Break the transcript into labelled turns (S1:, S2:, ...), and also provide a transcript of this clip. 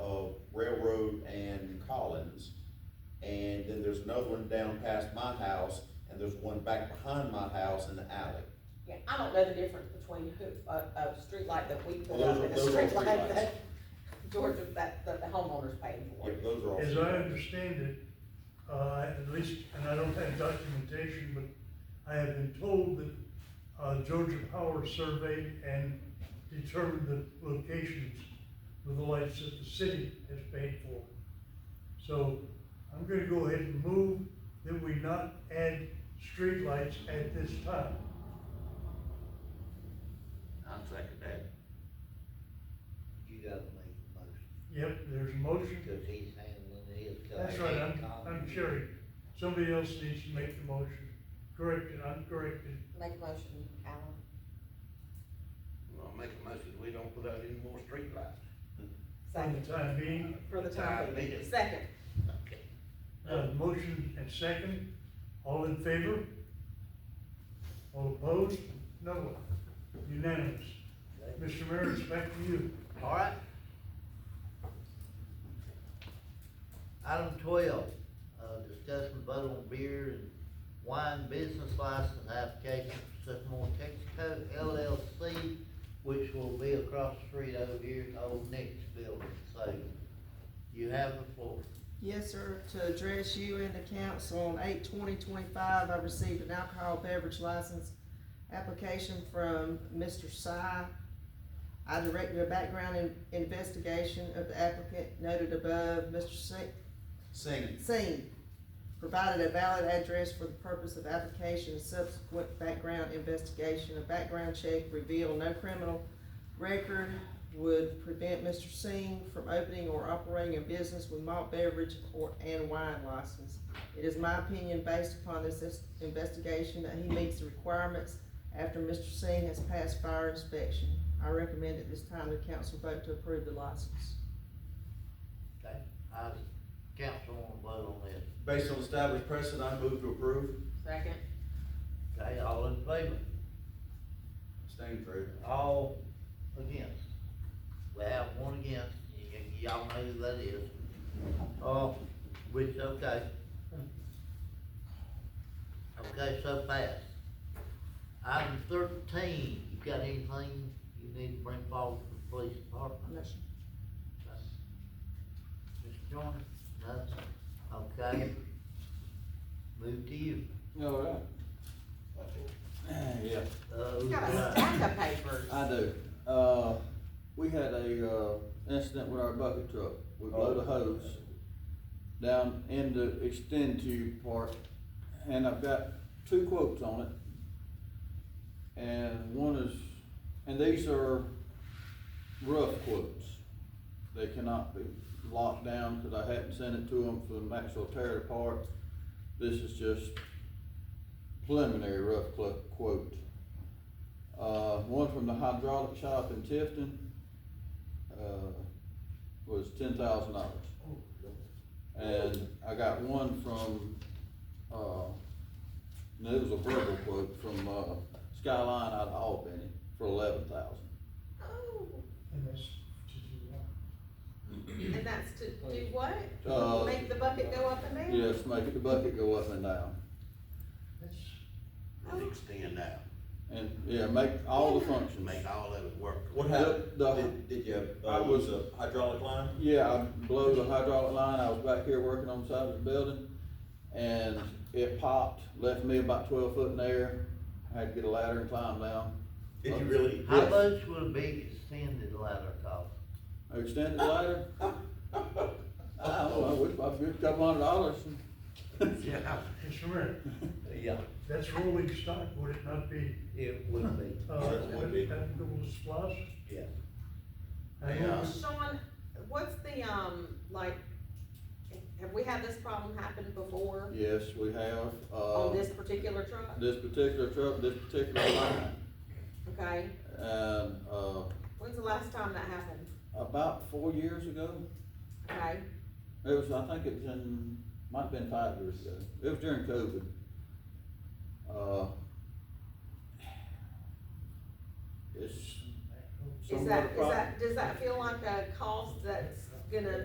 S1: then there's another one down past my house, and there's one back behind my house in the alley.
S2: Yeah, I don't know the difference between who, a, a streetlight that we put
S1: Well,
S2: up
S1: those are-
S2: and a
S1: those are all
S2: streetlight
S1: streetlights.
S2: that Georgia, that, that the homeowner's paying for.
S1: Yeah, those are all.
S3: As I understand it, uh, at least, and I don't have documentation, but I have been told that, uh, Georgia Power surveyed and determined the locations with the lights that the city has paid for. So I'm gonna go ahead and move that we not add streetlights at this time.
S4: I'm second that.
S5: You gotta make the motion,
S3: Yep, there's a motion.
S5: because he's handling his. 'cause I
S3: That's right, I'm,
S5: can't comment.
S3: I'm Sherry. Somebody else needs to make the motion. Correct it, I'm corrected.
S2: Make a motion, Alan.
S4: I'll make a motion, we don't put out any more streetlights.
S3: For
S2: Second,
S3: the time being,
S2: for the time
S4: Time
S2: being.
S4: being.
S2: Second.
S3: uh, motion and second, all in favor? All opposed? No one. Unanimous. Mr. Mayor, it's back to you.
S5: All right. Item twelve, uh, discuss and vote on beer and wine business license application for Sycamore Texaco LLC, which will be across the street over here at Old Nick's building, so you have the floor.
S6: Yes, sir. To address you and the council on eight twenty twenty-five, I received an alcohol beverage license application from Mr. Si. I directed a background in- investigation of the applicant noted above. Mr. Si-
S1: Singing.
S6: Singh provided a valid address for the purpose of application and subsequent background investigation. A background check revealed no criminal record would prevent Mr. Singh from opening or operating a business with malt beverage or, and wine license. It is my opinion, based upon this is- investigation, that he meets the requirements after Mr. Singh has passed fire inspection. I recommend at this time the council vote to approve the license.
S5: Okay, I, council wanna vote on this,
S1: Based on established precedent, I move to approve.
S2: Second.
S5: okay, all in favor?
S1: Staying true.
S5: All against. We have one against, y- y- y'all know who that is. Oh, which, okay. Okay, so fast. Item thirteen, you got anything you need to bring forward to the police department?
S6: Motion.
S5: Mr. Joyner, nothing, okay. Move to you.
S7: All right. Yeah,
S5: Uh, who's
S2: Got a
S5: got-
S2: stack of papers.
S7: I do. Uh, we had a, uh, incident with our bucket truck. We blew the hose down in the extend tube part, and I've got two quotes on it. And one is, and these are rough quotes. They cannot be locked down, cause I hadn't sent it to them for them actual tear it apart. This is just preliminary rough clo- quote. Uh, one from the hydraulic shop in Tifton, uh, was ten thousand dollars. And I got one from, uh, no, it was a verbal quote from, uh, Skyline out of Albany for eleven thousand.
S2: Oh,
S3: And that's to do what?
S2: and that's to do what?
S7: Uh,
S2: Make the bucket go up and down?
S7: Yes, make the bucket go up and down.
S5: That's-
S4: Extend out,
S7: And, yeah, make all the functions.
S4: make all of it work.
S1: What happened? Did, did you,
S7: I
S1: uh,
S7: was-
S1: use a hydraulic line?
S7: Yeah, I blew the hydraulic line, I was back here working on the side of the building, and it popped, left me about twelve foot in the air. I had to get a ladder and climb down.
S1: Did
S7: uh,
S1: you really?
S5: How
S7: Yes.
S5: much would a big extended ladder cost?
S7: Extended ladder? I don't know, it's about a couple hundred dollars.
S4: Yeah.
S3: Mr. Mayor,
S5: Yeah.
S3: that's rolling stock, would it not be?
S5: It would be,
S3: Uh,
S1: Certainly
S3: would
S1: be.
S3: that go to splash?
S5: yeah.
S3: I
S4: Yeah.
S3: know
S2: Sean, what's the, um, like, have we had this problem happen before
S7: Yes, we have,
S2: on
S7: uh,
S2: this particular truck?
S7: this particular truck, this particular line,
S2: Okay,
S7: and, uh,
S2: when's the last time that happened?
S7: about four years ago,
S2: Okay,
S7: it was, I think it was in, might have been five years ago, it was during COVID. Uh, It's
S2: is
S7: somewhat
S2: that,
S7: a
S2: is
S7: problem.
S2: that, does that feel like a cost that's gonna